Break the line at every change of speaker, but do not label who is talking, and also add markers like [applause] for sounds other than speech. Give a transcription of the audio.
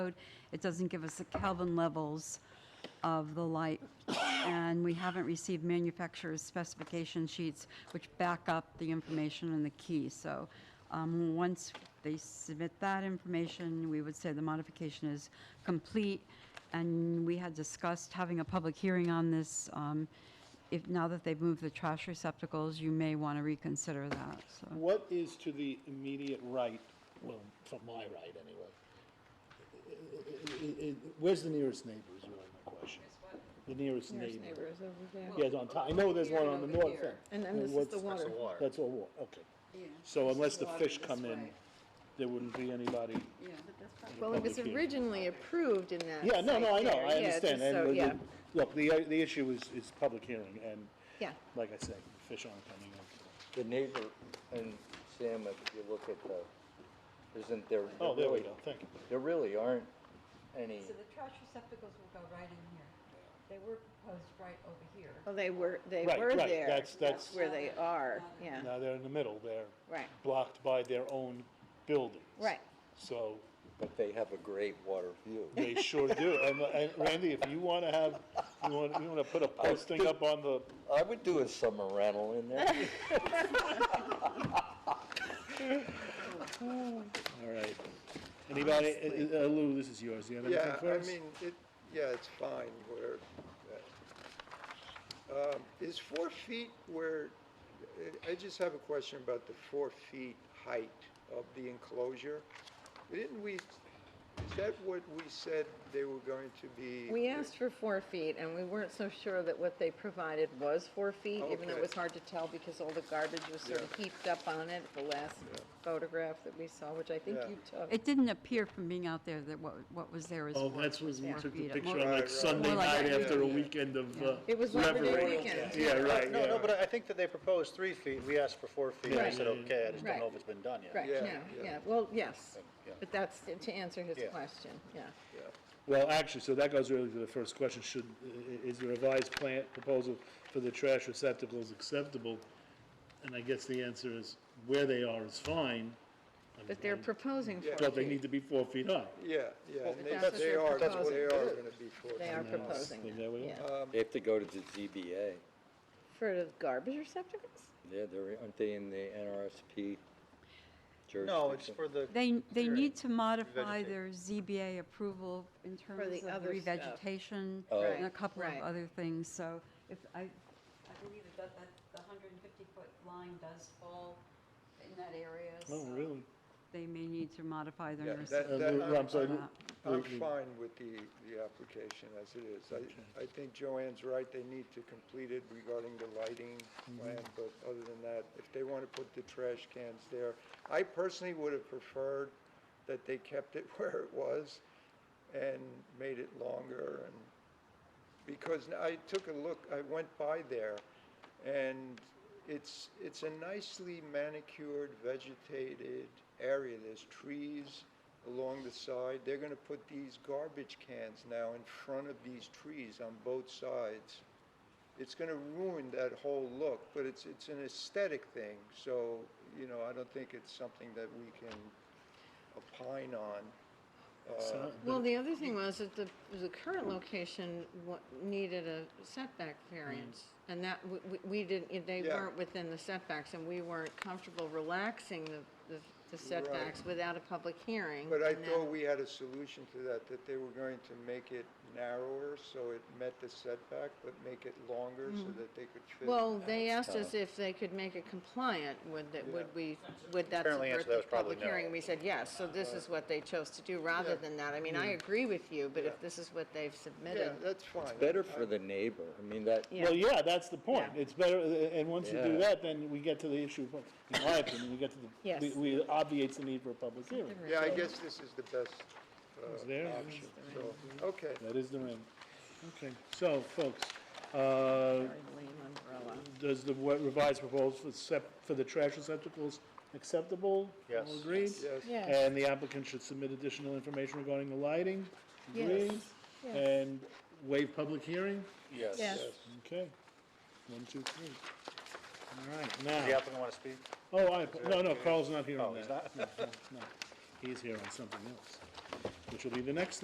code. It doesn't give us the Kelvin levels of the light. And we haven't received manufacturer's specification sheets which back up the information in the key. So um, once they submit that information, we would say the modification is complete. And we had discussed having a public hearing on this. Um, If, now that they've moved the trash receptacles, you may want to reconsider that, so.
What is to the immediate right, well, from my right anyway? I- I- I- Where's the nearest neighbor is really my question. The nearest
Nearest
neighbor.
neighbor is over there.
Yes, on top, I know there's one on the
Here and over
north
here.
end.
And then this is
what's-
the water. That's the
water.
That's all water, okay. So unless the fish come in, there wouldn't be anybody.
Well, it was
Public hearing.
originally approved in that.
Yeah, no, no, I
site
know,
there.
I
Yeah,
understand. and
just so-
with the-
Yeah,
Look, the, uh, the issue is, is public hearing, and
yeah.
like I said, the fish aren't coming in.
The neighbor, and Sam, if you look at the, isn't there,
Oh,
there
there we
really,
go, thank you.
there really aren't any,
So the trash receptacles will go right in here. They were proposed right over here.
Well, they were, they
Right,
were
right,
there.
that's- that's-
Where they are, yeah,
Now they're in the middle, they're
right,
blocked by their own buildings.
right.
So
but they have a great water view.
They sure
[laughs]
do. And, and Randy, if you want to have, you want, you want to put a posting up on the,
I would do a summer rental in
[laughs]
there.
all right. Anybody, uh, uh, Lou, this is yours. You have anything
Yeah,
for
I
us?
mean, it, yeah, it's fine where, uh, um, is four feet where, I- I just have a question about the four feet height of the enclosure. Didn't we, is that what we said they were going to be?
We asked for four feet, and we weren't so sure that what they provided was four feet, even though it
Okay.
was hard to tell because all the garbage was sort of heaped up on it, the last photograph that we saw, which I think
Yeah.
you took.
It didn't appear from being out there that what, what was there was.
Oh,
four-
that's when we
four
took the
feet.
picture
More-
on
Right,
like
right.
Sunday
More like-
night after a
Yeah.
weekend of, uh.
It was Labor Day
reverie.
weekend.
Yeah, right,
No, no,
yeah.
but I- I think that they proposed three feet, we asked for four feet, I
Right.
said, okay, I just don't know
Right.
if it's been done yet.
Right,
Yeah,
yeah,
yeah.
yeah, well, yes,
Yeah.
but that's to- to answer his
Yeah.
question, yeah.
Well, actually, so that goes really to the first question. Should, i- i- is the revised plant proposal for the trash receptacles acceptable? And I guess the answer is where they are is fine,
But they're proposing
Yeah.
four
but they
feet.
need to be four feet high.
Yeah, yeah, and they,
that's what
they
they're
are, they
proposing.
are gonna be four
They are
feet.
proposing
Then
that,
there we
yeah.
are.
They have to go to the ZBA.
For the garbage receptacles?
Yeah, they're, aren't they in the NRSP jurisdiction?
No, it's for the,
They, they
Sure.
need to modify
Revegetate.
their ZBA approval in terms of
the
the
other stuff.
revegetation
Oh.
and a
Right,
couple of
right.
other things, so if, I, I believe that, that the hundred and fifty foot line does fall in that area.
Oh,
so
really?
They may need to modify
Yeah,
their.
that-
Uh,
receptacle
that
Lou,
I'm-
I'm sorry, Lou-
I'm
Lou-
fine with the, the application as it is. I, I think Joanne's right, they need to complete it regarding the lighting
Mm-hmm.
plan, but other than that, if they want to put the trash cans there, I personally would have preferred that they kept it [laughs] where it was and made it longer and, because I took a look, I went by there, and it's, it's a nicely manicured, vegetated area. There's trees along the side. They're gonna put these garbage cans now in front of these trees on both sides. It's gonna ruin that whole look, but it's, it's an aesthetic thing, so, you know, I don't think it's something that we can opine on.
So-
Well, the other thing was that the, the current location wa- needed a setback variance, and that, we- we, we didn't, they
Yeah.
weren't within the setbacks, and we weren't comfortable relaxing the, the- the setbacks without a public hearing.
But I
and that-
thought we had a solution to that, that they were going to make it narrower so it met the setback, but make it longer so that they could fit.
Well, they asked us if they could make it compliant, would that, would we, would that
Apparently answer
subvert
that
the
was probably
public
no.
hearing? We said yes, so this is what they chose to do rather than that. I mean,
Hmm.
I agree with you, but
Yeah.
if this is what they've
Yeah,
submitted,
that's fine.
Better for the neighbor, I mean, that,
yeah.
Well, yeah, that's the point.
Yeah.
It's better, uh, and once you do
Yeah.
that, then we get to the issue, of- in my opinion, we get to the,
Yes.
we- we obviates the need for a public hearing.
Yeah, I guess this is the best
It's
uh,
there.
option, so, okay.
That is the rim. Okay, so, folks, uh,
Very lame umbrella.
does the wa- revised proposal for sep- for the trash receptacles acceptable?
Yes.
All agreed?
Yes.
Yes.
And the applicant should submit additional information regarding the lighting?
Yes.
Agreed?
Yes.
And waive public hearing?
yes.
Yes.
Okay. One, two, three. All right,
Does the
now,
applicant want to speak?
oh, I, no, no, Carl's not here
Oh,
on
he's
that. No, no, no. He's here on something else. which will be the next